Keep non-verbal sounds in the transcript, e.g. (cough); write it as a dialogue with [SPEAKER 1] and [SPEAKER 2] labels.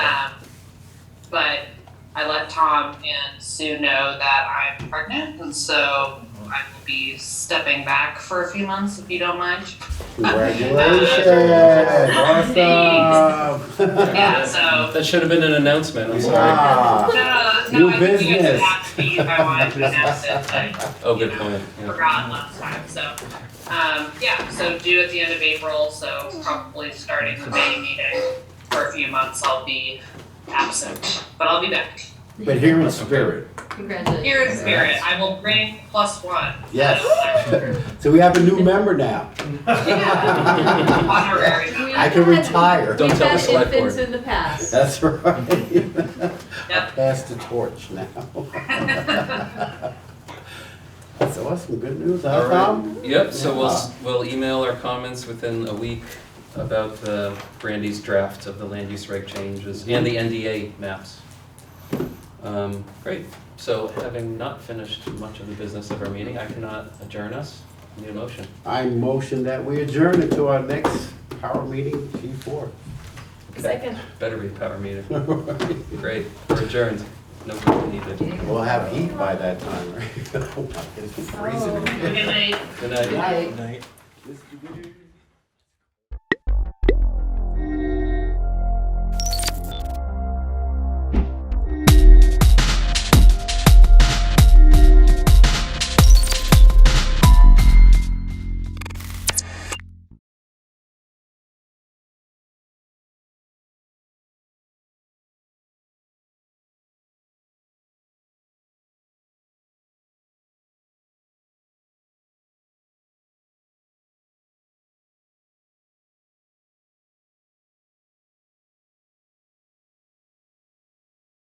[SPEAKER 1] Um, Tom and Sue know that I'm pregnant, and so I will be stepping back for a few months if you don't mind.
[SPEAKER 2] Congratulations! Awesome!
[SPEAKER 1] Yeah, so.
[SPEAKER 3] That should have been an announcement. I'm sorry.
[SPEAKER 2] Wow.
[SPEAKER 1] No, no,
[SPEAKER 2] New
[SPEAKER 1] I think you guys
[SPEAKER 2] business.
[SPEAKER 1] would ask me if I
[SPEAKER 2] (laughs)
[SPEAKER 1] wanted to announce it, but I
[SPEAKER 3] Oh, good point. Yeah.
[SPEAKER 1] forgot last time, so. Um, yeah, so due at the end of April, so probably starting the May meeting for a few months, I'll be absent, but I'll be back.
[SPEAKER 2] But here in spirit.
[SPEAKER 4] Congratulations.
[SPEAKER 1] Here in spirit, I will bring plus one.
[SPEAKER 2] Yes. (laughs) So we have a new member now.
[SPEAKER 1] Yeah. Honorary. (laughs)
[SPEAKER 4] We
[SPEAKER 2] I
[SPEAKER 4] have
[SPEAKER 2] can
[SPEAKER 4] had-
[SPEAKER 2] retire.
[SPEAKER 3] Don't
[SPEAKER 4] we've
[SPEAKER 3] tell the
[SPEAKER 4] had
[SPEAKER 3] select
[SPEAKER 4] infants
[SPEAKER 3] board.
[SPEAKER 4] in the past.
[SPEAKER 2] That's (laughs) right. I'll pass the torch (laughs) now. That's awesome, good news, huh,
[SPEAKER 3] All right.
[SPEAKER 2] Tom?
[SPEAKER 3] Yep, so we'll, s- we'll email our comments within a week about the Brandy's draft of the land use reg changes and the NDA maps. Um, Great, so having not finished much of the business of our meeting, I cannot adjourn us. Need a motion?
[SPEAKER 2] I motion that we adjourn until our next power meeting, G (laughs) four.
[SPEAKER 4] Second.
[SPEAKER 3] Better be a power meeting. Great, we're adjourned. No vote needed.
[SPEAKER 2] We'll have heat by that (laughs) time, right? It's freezing.
[SPEAKER 1] Good night.
[SPEAKER 3] Good night.
[SPEAKER 2] Night.
[SPEAKER 5] Night.
[SPEAKER 2] Mr. Green.